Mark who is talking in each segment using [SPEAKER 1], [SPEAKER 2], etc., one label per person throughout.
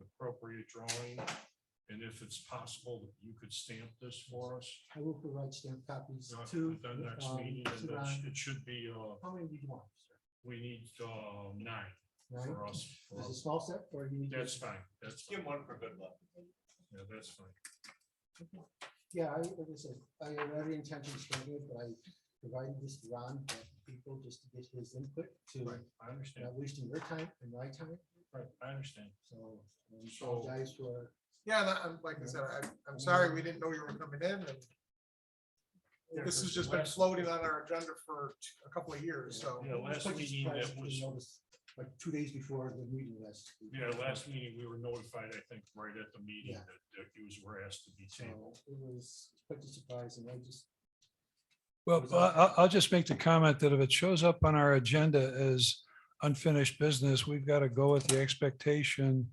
[SPEAKER 1] appropriate drawing? And if it's possible, that you could stamp this for us?
[SPEAKER 2] I will provide stamp copies
[SPEAKER 1] uh,
[SPEAKER 2] to.
[SPEAKER 1] At the next
[SPEAKER 2] um,
[SPEAKER 1] meeting,
[SPEAKER 2] to
[SPEAKER 1] and that's-
[SPEAKER 2] Ron.
[SPEAKER 1] it should be, uh,
[SPEAKER 2] How many do you want? sir?
[SPEAKER 1] we need, uh, nine
[SPEAKER 2] Nine?
[SPEAKER 1] for us. for
[SPEAKER 2] Is it
[SPEAKER 1] us.
[SPEAKER 2] small set or you need?
[SPEAKER 1] That's fine, that's fine,
[SPEAKER 3] one for good luck.
[SPEAKER 1] yeah, that's fine.
[SPEAKER 2] Yeah, I, like I said, I had every intention to do it, but I provided this to Ron, uh, people just to get his input to
[SPEAKER 1] Right, I understand,
[SPEAKER 2] not wasting your time and my time,
[SPEAKER 1] right, I understand.
[SPEAKER 2] so. um, I
[SPEAKER 1] So-
[SPEAKER 2] Apologize for,
[SPEAKER 4] Yeah, and I- I'm, like I said, I, I'm sorry, we didn't know you were coming in and this has just been floating on our agenda for t- a couple of years, so.
[SPEAKER 1] Yeah, last
[SPEAKER 2] I was uh, quite
[SPEAKER 1] meeting
[SPEAKER 2] surprised
[SPEAKER 1] that
[SPEAKER 2] to
[SPEAKER 1] was-
[SPEAKER 2] notice, Like two days before the meeting last. week.
[SPEAKER 1] Yeah, last meeting, we were notified, I think, right at the meeting
[SPEAKER 2] Yeah.
[SPEAKER 1] that the accused were asked to be
[SPEAKER 2] So
[SPEAKER 1] tabled.
[SPEAKER 2] It was quite a surprise and I just,
[SPEAKER 5] Well, I- I'll, I'll just make the comment that if it shows up on our agenda as unfinished business, we've got to go with the expectation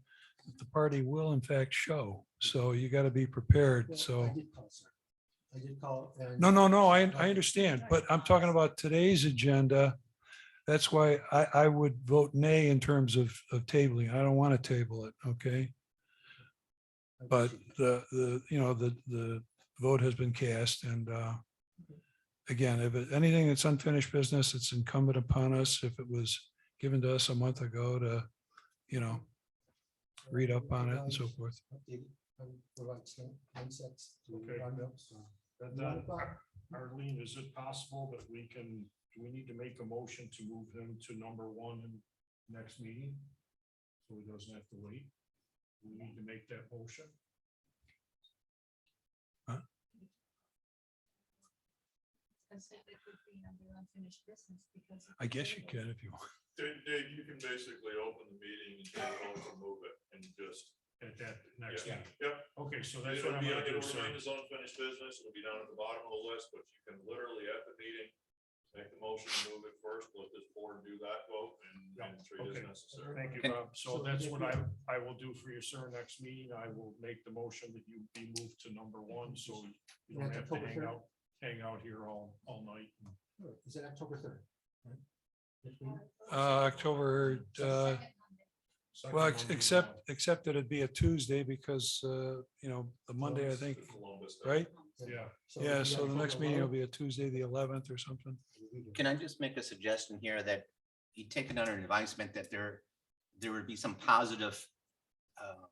[SPEAKER 5] that the party will in fact show. So you got to be
[SPEAKER 2] well,
[SPEAKER 5] prepared.
[SPEAKER 2] I
[SPEAKER 5] So,
[SPEAKER 2] did call, sir. I did call and.
[SPEAKER 5] no, no, no, I, I understand, but I'm talking about today's agenda. That's why I, I would vote nay in terms of, of tabling. I don't want to table it, okay?
[SPEAKER 2] I
[SPEAKER 5] But
[SPEAKER 2] appreciate it.
[SPEAKER 5] the, the, you know, the, the vote has been cast and uh, again, if it- anything that's unfinished business, it's incumbent upon us, if it was given to us a month ago to, you know, read up on it and so
[SPEAKER 2] Provide-
[SPEAKER 5] forth.
[SPEAKER 2] updated, um, provide stamp concepts to
[SPEAKER 1] Okay.
[SPEAKER 2] Ron Mills, so.
[SPEAKER 1] And
[SPEAKER 2] One
[SPEAKER 1] then,
[SPEAKER 2] o'clock?
[SPEAKER 1] Arlene, is it possible that we can, do we need to make a motion to move him to number one in next meeting? So he doesn't have to wait? We need to make that motion?
[SPEAKER 6] I said it would be under unfinished business because.
[SPEAKER 5] I guess you can if you want.
[SPEAKER 7] Dave, Dave, you can basically open the meeting and then also move it and just.
[SPEAKER 1] At that next
[SPEAKER 7] Yeah.
[SPEAKER 1] meeting?
[SPEAKER 7] Yep.
[SPEAKER 1] Okay, so that's
[SPEAKER 7] It'll
[SPEAKER 1] what I'm
[SPEAKER 7] be,
[SPEAKER 1] gonna do,
[SPEAKER 7] it'll
[SPEAKER 1] sir.
[SPEAKER 7] remain as unfinished business. It'll be down at the bottom of the list, but you can literally at the meeting, make the motion, move it first, let this board do that vote and, and treat it
[SPEAKER 1] Okay.
[SPEAKER 7] as necessary.
[SPEAKER 1] Thank you,
[SPEAKER 2] And-
[SPEAKER 1] Bob. So
[SPEAKER 2] So
[SPEAKER 1] that's
[SPEAKER 2] if
[SPEAKER 1] what
[SPEAKER 2] you-
[SPEAKER 1] I, I will do for you, sir. Next meeting, I will make the motion that you be moved to number one, so you don't
[SPEAKER 2] That's
[SPEAKER 1] have to
[SPEAKER 2] October
[SPEAKER 1] hang out,
[SPEAKER 2] third?
[SPEAKER 1] hang out here all, all night.
[SPEAKER 2] Sure. Is it October third?
[SPEAKER 5] Uh, October, uh,
[SPEAKER 1] Second
[SPEAKER 5] well,
[SPEAKER 1] Monday of
[SPEAKER 5] ex-
[SPEAKER 1] the month.
[SPEAKER 5] except, except that it'd be a Tuesday because, uh, you know, the Monday, I
[SPEAKER 7] It's
[SPEAKER 5] think,
[SPEAKER 7] the Columbus Day.
[SPEAKER 5] right?
[SPEAKER 1] Yeah,
[SPEAKER 5] Yeah, so the next meeting will be a Tuesday, the eleventh or something.
[SPEAKER 3] Can I just make a suggestion here that you take it under advisement that there, there would be some positive uh,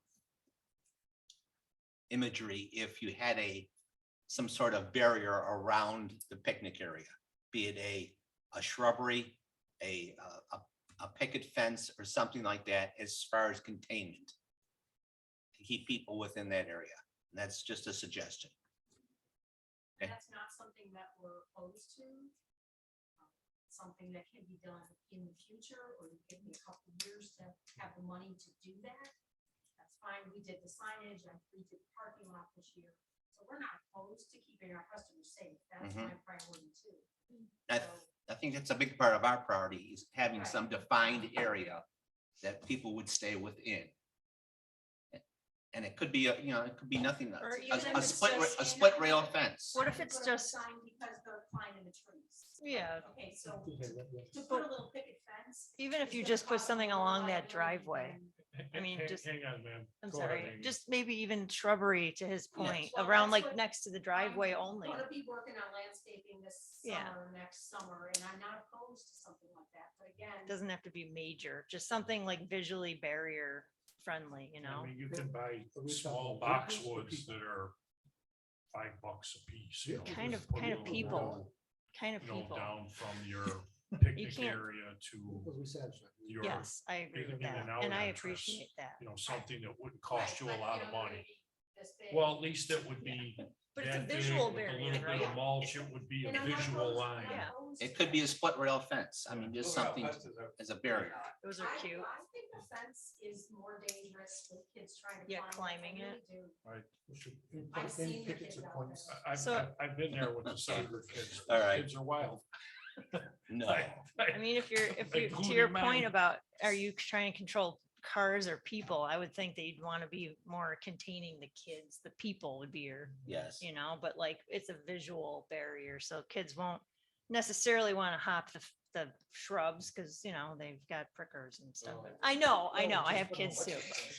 [SPEAKER 3] imagery if you had a, some sort of barrier around the picnic area, be it a, a shrubbery, a, uh, a, a picket fence or something like that as far as containment. To keep people within that area. That's just a suggestion.
[SPEAKER 6] That's not
[SPEAKER 5] uh,
[SPEAKER 6] something that we're opposed to. um, Something that can be done in the future, or you give me a couple of years to have the money to do that. That's fine. We did the signage and we did the parking lot this year. So we're not opposed to keeping our customers safe. That's
[SPEAKER 3] Mhm.
[SPEAKER 6] my priority too.
[SPEAKER 3] I,
[SPEAKER 6] So-
[SPEAKER 3] I think that's a big part of our priority is having
[SPEAKER 6] Right.
[SPEAKER 3] some defined area that people would stay within. And it could be, a you know, it could be nothing,
[SPEAKER 8] Or
[SPEAKER 3] a-
[SPEAKER 8] even
[SPEAKER 3] a, a
[SPEAKER 8] if it's
[SPEAKER 3] split, ra-
[SPEAKER 8] just
[SPEAKER 3] a
[SPEAKER 6] in-
[SPEAKER 3] split rail fence.
[SPEAKER 8] What
[SPEAKER 6] You
[SPEAKER 8] if
[SPEAKER 6] can
[SPEAKER 8] it's
[SPEAKER 6] put up a
[SPEAKER 8] just-
[SPEAKER 6] Sign because they're climbing the trees.
[SPEAKER 8] Yeah,
[SPEAKER 6] Okay, so to put a little picket fence.
[SPEAKER 8] even if
[SPEAKER 6] is
[SPEAKER 8] you
[SPEAKER 6] gonna
[SPEAKER 8] just put
[SPEAKER 6] cause
[SPEAKER 8] something
[SPEAKER 6] more
[SPEAKER 8] along that
[SPEAKER 6] liability
[SPEAKER 8] driveway,
[SPEAKER 6] than-
[SPEAKER 8] I mean,
[SPEAKER 1] Hang-
[SPEAKER 8] just-
[SPEAKER 1] Hang on, ma'am.
[SPEAKER 8] I'm
[SPEAKER 1] Go ahead,
[SPEAKER 8] sorry,
[SPEAKER 1] Amy.
[SPEAKER 8] just maybe even shrubbery to his point,
[SPEAKER 6] Well,
[SPEAKER 8] around
[SPEAKER 6] that's
[SPEAKER 8] like
[SPEAKER 6] what
[SPEAKER 8] next to the driveway
[SPEAKER 6] I'm
[SPEAKER 8] only.
[SPEAKER 6] Gonna be working on landscaping this
[SPEAKER 8] Yeah.
[SPEAKER 6] summer, next summer, and I'm not opposed to something like that, but again,
[SPEAKER 8] Doesn't have to be major, just something like visually barrier friendly, you
[SPEAKER 1] I
[SPEAKER 8] know?
[SPEAKER 1] mean, you can buy
[SPEAKER 2] talking
[SPEAKER 1] small
[SPEAKER 2] workers or
[SPEAKER 1] boxwoods
[SPEAKER 2] people?
[SPEAKER 1] that are five bucks a piece. you
[SPEAKER 2] Yeah.
[SPEAKER 1] know,
[SPEAKER 8] Kind
[SPEAKER 1] just
[SPEAKER 8] of-
[SPEAKER 1] put a
[SPEAKER 8] kind of
[SPEAKER 1] little,
[SPEAKER 8] people. Kind of
[SPEAKER 1] You know,
[SPEAKER 8] people.
[SPEAKER 1] down from your picnic
[SPEAKER 8] can't-
[SPEAKER 1] area to,
[SPEAKER 2] Because we said.
[SPEAKER 1] Your-
[SPEAKER 8] Yes, I agree
[SPEAKER 1] in-
[SPEAKER 8] with
[SPEAKER 1] in
[SPEAKER 8] that.
[SPEAKER 1] and out
[SPEAKER 8] And I
[SPEAKER 1] entrance.
[SPEAKER 8] appreciate that.
[SPEAKER 1] you know, something that wouldn't cost you
[SPEAKER 6] Right,
[SPEAKER 1] a
[SPEAKER 6] but,
[SPEAKER 1] lot
[SPEAKER 6] you
[SPEAKER 1] of
[SPEAKER 6] know,
[SPEAKER 1] money.
[SPEAKER 6] this big.
[SPEAKER 1] Well, at least it would be.
[SPEAKER 8] But it's a
[SPEAKER 1] that big
[SPEAKER 8] visual
[SPEAKER 1] with A
[SPEAKER 8] barrier,
[SPEAKER 1] little bit
[SPEAKER 8] right?
[SPEAKER 1] of mulch, it would be
[SPEAKER 6] And
[SPEAKER 1] a
[SPEAKER 6] I'm not
[SPEAKER 1] visual
[SPEAKER 6] opposed- I'm
[SPEAKER 1] line.
[SPEAKER 6] not
[SPEAKER 8] Yeah.
[SPEAKER 6] opposed
[SPEAKER 3] It
[SPEAKER 6] to
[SPEAKER 3] could
[SPEAKER 6] that.
[SPEAKER 3] be a split rail fence. I mean, just
[SPEAKER 1] Well,
[SPEAKER 3] something as a barrier.
[SPEAKER 8] Those are
[SPEAKER 6] I-
[SPEAKER 8] cute.
[SPEAKER 6] I think the fence is more dangerous with kids trying to.
[SPEAKER 8] Yeah,
[SPEAKER 6] climb it. I
[SPEAKER 8] climbing it.
[SPEAKER 6] really do. I've seen
[SPEAKER 2] Any
[SPEAKER 6] the
[SPEAKER 2] tickets
[SPEAKER 6] kids
[SPEAKER 2] or
[SPEAKER 6] out
[SPEAKER 2] points.
[SPEAKER 6] there.
[SPEAKER 1] I- I've,
[SPEAKER 8] So-
[SPEAKER 1] I've- I've been there with the soccer kids.
[SPEAKER 3] All right.
[SPEAKER 1] Kids are wild.
[SPEAKER 3] No,
[SPEAKER 8] I mean, if you're, if
[SPEAKER 1] Like
[SPEAKER 8] you,
[SPEAKER 1] glued
[SPEAKER 8] to your
[SPEAKER 1] in mine.
[SPEAKER 8] point about, are you trying to control cars or people? I would think that you'd want to be more containing the kids, the people would be your
[SPEAKER 3] yes.
[SPEAKER 8] you know, but like it's a visual barrier, so kids won't necessarily want to hop the, f- the shrubs because, you know, they've got prickers and stuff.
[SPEAKER 2] Oh.
[SPEAKER 8] I know, I
[SPEAKER 2] No,
[SPEAKER 8] know, I
[SPEAKER 2] just
[SPEAKER 8] have
[SPEAKER 2] put a
[SPEAKER 8] kids too.
[SPEAKER 2] bunch of-